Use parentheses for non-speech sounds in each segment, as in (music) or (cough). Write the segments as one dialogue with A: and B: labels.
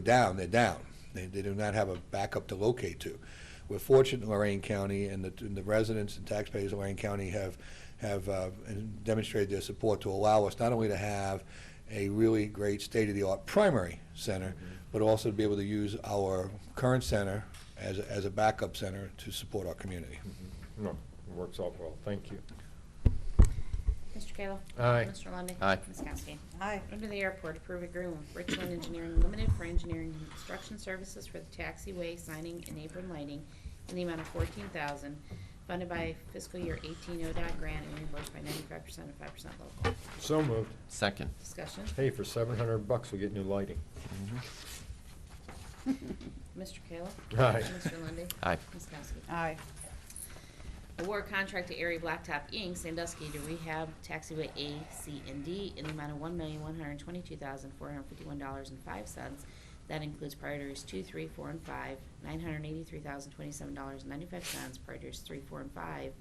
A: down, they're down. They, they do not have a backup to locate to. We're fortunate in Lorraine County, and the, and the residents and taxpayers of Lorraine County have, have uh, demonstrated their support to allow us not only to have a really great state-of-the-art primary center, but also to be able to use our current center as, a- as a backup center to support our community.
B: Mm-hmm. No, it works out well, thank you.
C: Mr. Kayla.
B: Aye.
C: Mr. Lundey.
D: Aye.
C: Ms. Kowski.
E: Aye.
C: Under the airport, approve agreement with Richland Engineering Limited for engineering and construction services for the taxiway signing and apron lighting in the amount of fourteen thousand, funded by fiscal year eighteen ODOT grant and reimbursed by ninety-five percent and five percent local.
B: So moved.
D: Second.
C: Discussion.
B: Hey, for seven hundred bucks, we get new lighting.
C: Mr. Kayla.
B: Aye.
C: Mr. Lundey.
D: Aye.
C: Ms. Kowski.
E: Aye.
C: Award contract to Erie Blacktop Inc., Sandusky to rehab taxiway A, C, and D in the amount of one million, one hundred and twenty-two thousand, four hundred and fifty-one dollars and five cents. That includes priorities two, three, four, and five, nine hundred and eighty-three thousand, twenty-seven dollars and ninety-five cents. Priorities three, four, and five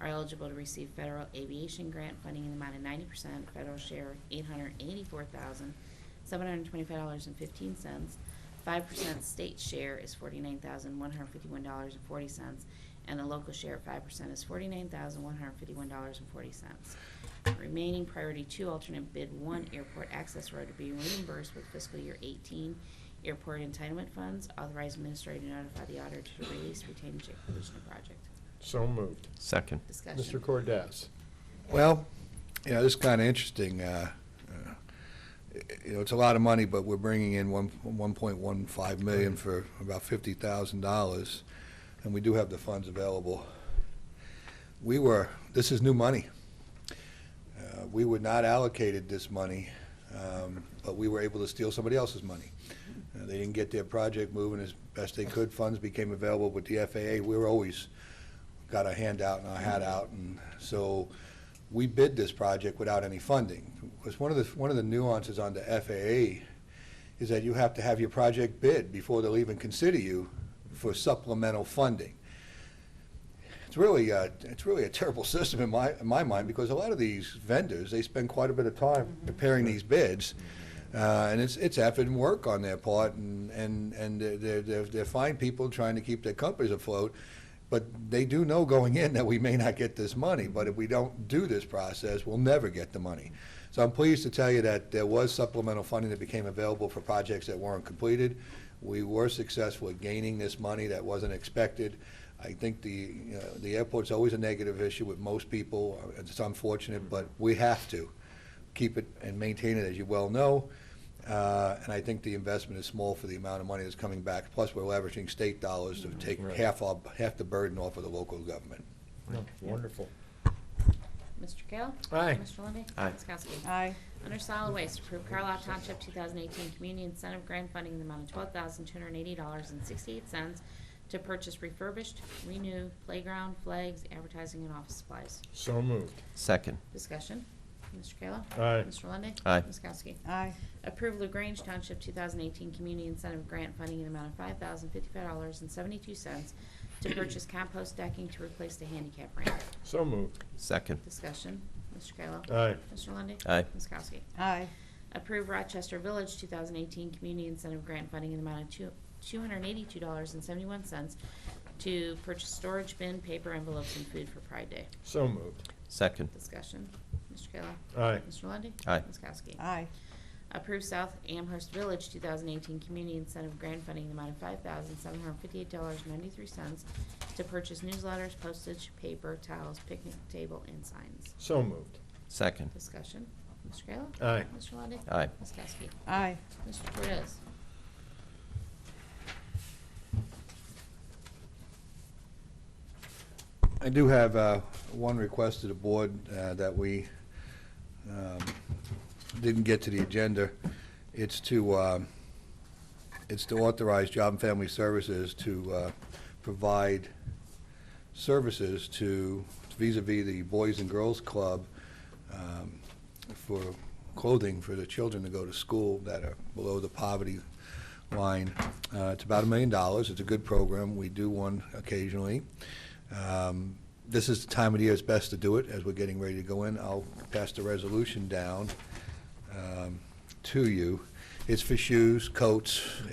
C: are eligible to receive federal aviation grant funding in the amount of ninety percent, federal share eight hundred and eighty-four thousand, seven hundred and twenty-five dollars and fifteen cents. Five percent state share is forty-nine thousand, one hundred and fifty-one dollars and forty cents, and the local share of five percent is forty-nine thousand, one hundred and fifty-one dollars and forty cents. Remaining priority two alternate bid one airport access road to be reimbursed with fiscal year eighteen airport entitlement funds. Authorize administrator to notify the auditor to release retained jet pollution project.
B: So moved.
D: Second.
C: Discussion.
B: Mr. Cordez?
A: Well, you know, this is kind of interesting. uh, uh, You know, it's a lot of money, but we're bringing in one 1.15 million for about $50,000, and we do have the funds available. We were, this is new money. Uh, We were not allocated this money, um, but we were able to steal somebody else's money. Uh, They didn't get their project moving as best they could. Funds became available with the FAA. We were always, got our hand out and our hat out, and so we bid this project without any funding. Because one of the, one of the nuances on the FAA is that you have to have your project bid before they'll even consider you for supplemental funding. It's really, uh, it's really a terrible (laughs) system in my, in my mind, because a lot of these vendors, they spend quite a bit of time preparing these bids. Uh, and it's, it's effort and work on their part, and, and, and they're- they're, they're, they're fine people trying to keep their companies afloat. But they do know going in that we may not get this money, but if we don't do this process, we'll never get the money. So I'm pleased to tell you that there was supplemental funding that became available for projects that weren't completed. We were successful at gaining this money that wasn't expected. I think the, you know, the airport's always a negative issue with most people. It's unfortunate, but we have to keep it and maintain it, as you well know. Uh, And I think the investment is small for the amount of money that's coming back. Plus, we're leveraging state dollars to take
B: Right.
A: half, our- half the burden off of the local government.
B: No, Wonderful.
C: Mr. Kayla.
B: Aye.
C: Mr. Lundey.
D: Aye.
C: Ms. Kowski.
E: Aye.
C: Under solid waste, approve Carlisle Township 2018 Community Incentive Grant Funding in the amount of $12,280.68 to purchase refurbished, renew playground, flags, advertising, and office supplies.
B: So moved.
D: Second.
C: Discussion. Mr. Kayla?
B: Aye.
C: Mr. Lundey?
D: Aye.
C: Ms. Kowski?
E: Aye.
C: Approve LaGrange Township 2018 Community Incentive Grant Funding in the amount of $5,055.72 to
D: (clears throat)
C: purchase compost decking to replace the handicap ramp.
B: So moved.
D: Second.
C: Discussion. Mr. Kayla?
B: Aye.
C: Mr. Lundey?
D: Aye.
C: Ms. Kowski?
E: Aye.
C: Approve Rochester Village 2018 Community Incentive Grant Funding in the amount of two- $282.71 to purchase storage bin, paper envelopes, and food for Pride Day.
B: So moved.
D: Second.
C: Discussion. Mr. Kayla?
B: Aye.
C: Mr. Lundey?
D: Aye.
C: Ms. Kowski?
E: Aye.
C: Approve South Amherst Village 2018 Community Incentive Grant Funding in the amount of $5,758.93 to purchase newsletters, postage, paper, towels, picnic table, and signs.
B: So moved.
D: Second.
C: Discussion. Mr. Kayla?
B: Aye.
C: Mr. Lundey?
D: Aye.
C: Ms. Kowski?
E: Aye.
C: Mr. Cortez?
A: I do have uh, one request to the board uh, that we um, didn't get to the agenda. It's to, um, it's to authorize Job and Family Services to uh, provide services to vis a vis the Boys and Girls Club um, for clothing for the children to go to school that are below the poverty line. Uh, It's about a million dollars. It's a good program. We do one occasionally. Um, This is the time of the year it's best to do it, as we're getting ready to go in. I'll pass the resolution down um, to you. It's for shoes, coats,